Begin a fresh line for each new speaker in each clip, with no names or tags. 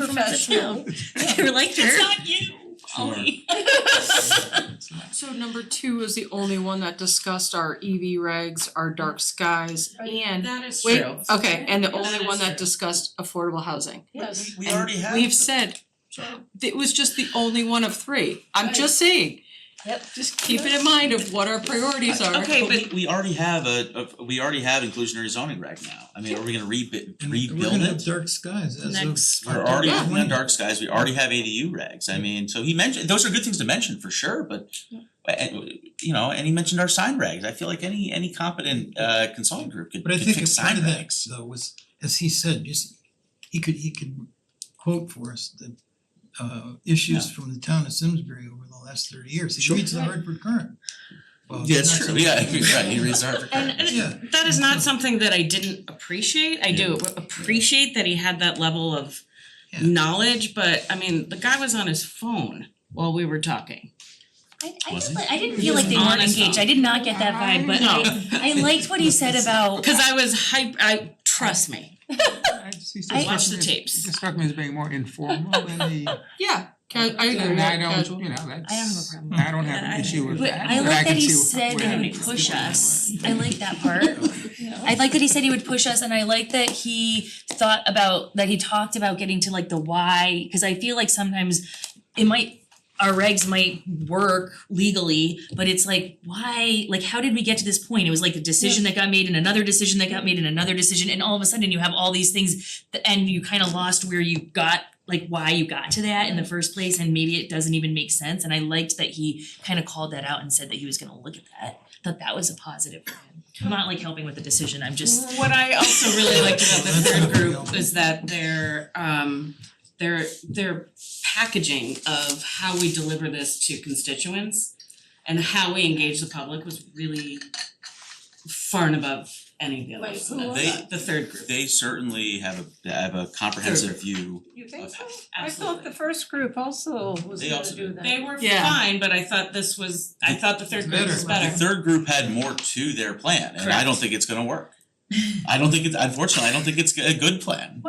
us now. They were like,
It's
sure.
not you,
Oh,
Ollie.
So number two is the only one that discussed our EV regs, our dark skies, and
That is true.
wait, okay, and the
Yeah, that
only one
is
that
true.
discussed affordable housing.
Yes.
We already have.
We've said, it was just the only one of three, I'm just saying.
Yep.
Just keep it in mind of what our priorities are.
Okay,
But we we already have a, a, we already have inclusionary zoning reg now. I mean, are we gonna rebuild rebuild
We're gonna have
it?
dark skies as of.
Next.
We're already
Yeah.
working on dark skies, we already have ADU regs. I mean, so he mentioned, those are good things to mention for sure, but and, you know, and he mentioned our sign regs. I feel like any any competent uh consulting group could
But I
could
think a
fix sign
part of that
regs.
though was, as he said, just, he could, he could quote for us the uh issues from the town of Simsbury over the last thirty years, he
Sure.
reads the Hartford Current. Well,
Yeah,
it's
that's
not
true,
so-
yeah, right, he reads our.
And and
Yeah.
it- that is not something that I didn't appreciate. I do appreciate that he had that level of
Yeah.
knowledge, but I mean, the guy was on his phone while we were talking.
I I
Was
didn't
it?
like- I didn't feel like they
On
weren't
his
engaged.
phone.
I did not get that vibe, but I I liked what he said about
Cause I was hype, I, trust me,
I just used to
I-
struck
Watch the
me as-
tapes.
It struck me as being more informal than the,
Yeah, ca- I agree,
and I
casual.
don't, you know, that's.
I don't have a problem.
I don't have
I-
an issue with
But
that,
I
but I
like that
can
he
see
said
where
he
it
would
is.
push us. I like that part. I like that he said he would push us and I like that he thought about, that he talked about getting to like the why, cause I feel like sometimes it might, our regs might work legally, but it's like, why, like, how did we get to this point? It was like a decision that got made and another decision that got made and another decision, and all of a sudden you have all these things th- and you kind of lost where you got, like, why you got to that in the first place, and maybe it doesn't even make sense, and I liked that he kind of called that out and said that he was gonna look at that. Thought that was a positive for him. I'm not like helping with the decision, I'm just
What I also really liked about the third group is that their um their their packaging of how we deliver this to constituents and how we engage the public was really far and above any of the others.
Wait, who was
They-
The third group.
They certainly have a have a comprehensive view
You think
of
so? I thought
Absolutely.
the first group also was
They
gonna
also
do
did.
that.
They were
Yeah.
fine, but I thought this was, I thought the third group was
Better.
better.
The third group had more to their plan, and I don't think it's gonna work. I don't think it's, unfortunately, I don't think it's a good plan.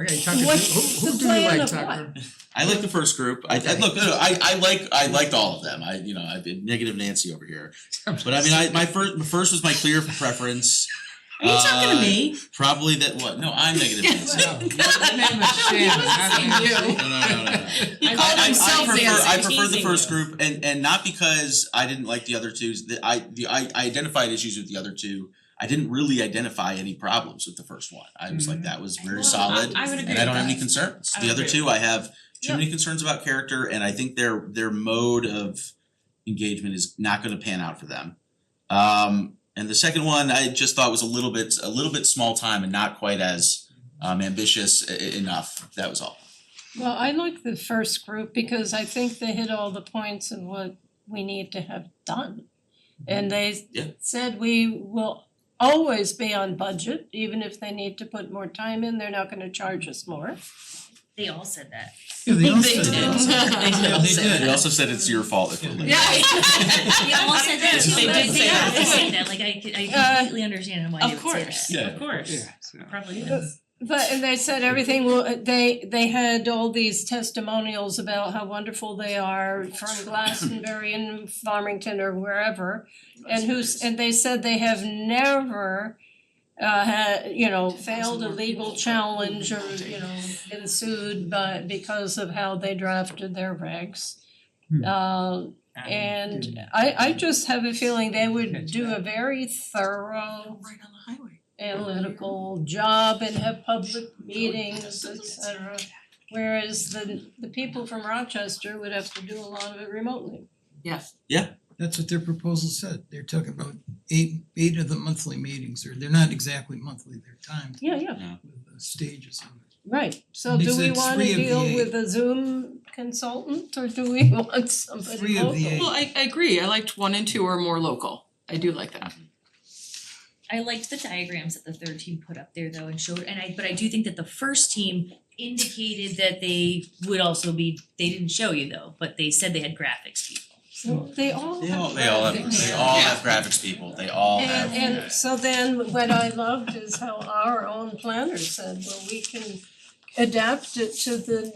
Okay, Tucker, who
What's
who
the
who do you
plan
like,
of
Tucker?
what?
I like the first group, I I look, no, no, I I like, I liked all of them, I, you know, I've been negative Nancy over here. But I mean, I my first, my first was my clear preference.
Are you talking
Uh,
to me?
Probably that, what, no, I'm negative Nancy.
No, your name is Shannon, not Nancy.
No, no, no, no, no.
He
I- I- I prefer, I prefer the first group and and not because I didn't like the other two, the I the I I identified issues with the other two. I didn't really identify any problems with the first one. I was like, that was very solid
I would agree
and I don't
with
have any
that.
concerns.
I
The
would
other
agree
two, I have too many concerns about character and I think their their mode of engagement is not gonna pan out for them. Um and the second one, I just thought was a little bit a little bit small time and not quite as um ambitious e- e- enough. That was all.
Well, I like the first group because I think they hit all the points and what we need to have done. And they
Yeah.
said we will always be on budget, even if they need to put more time in, they're not gonna charge us more.
They all said that.
Yeah, they all
They
said
did.
that. Yeah, they
They
They
did.
also said it's your fault if we're late.
They all said that
Yes,
too,
they
but
did say
they all
that.
said that, like I could- I
Uh,
completely understand why they would
Of
say that.
course,
Yeah.
of course.
Yeah, so.
Probably is.
But and they said everything will, they they had all these testimonials about how wonderful they are from Glastonbury and Farmington or wherever. And who's, and they said they have never uh had, you know, failed a legal challenge or, you know, been sued but because of how they drafted their regs.
Hmm.
Uh and I I just have a feeling they would do a very thorough
Right on the highway.
analytical job and have public meetings, et cetera. Whereas the the people from Rochester would have to do a lot of it remotely.
That's what their proposal said, they're talking about eight, eight of the monthly meetings, or they're not exactly monthly, they're timed
Yeah, yeah,
with the stages of it.
right. So
They
do we
said
wanna
three of the
deal
eight.
with a Zoom consultant or do we want somebody
Three of
local?
the
Well, I I agree, I liked one and two are more local, I do like that.
I liked the diagrams that the third team put up there though and showed, and I, but I do think that the first team indicated that they would also be, they didn't show you though, but they said they had graphics people.
Well, They all
They all,
have.
they all have,
graphics.
they all have graphics people, they all have.
And and so then what I loved is how our own planner said, well, we can adapt it to the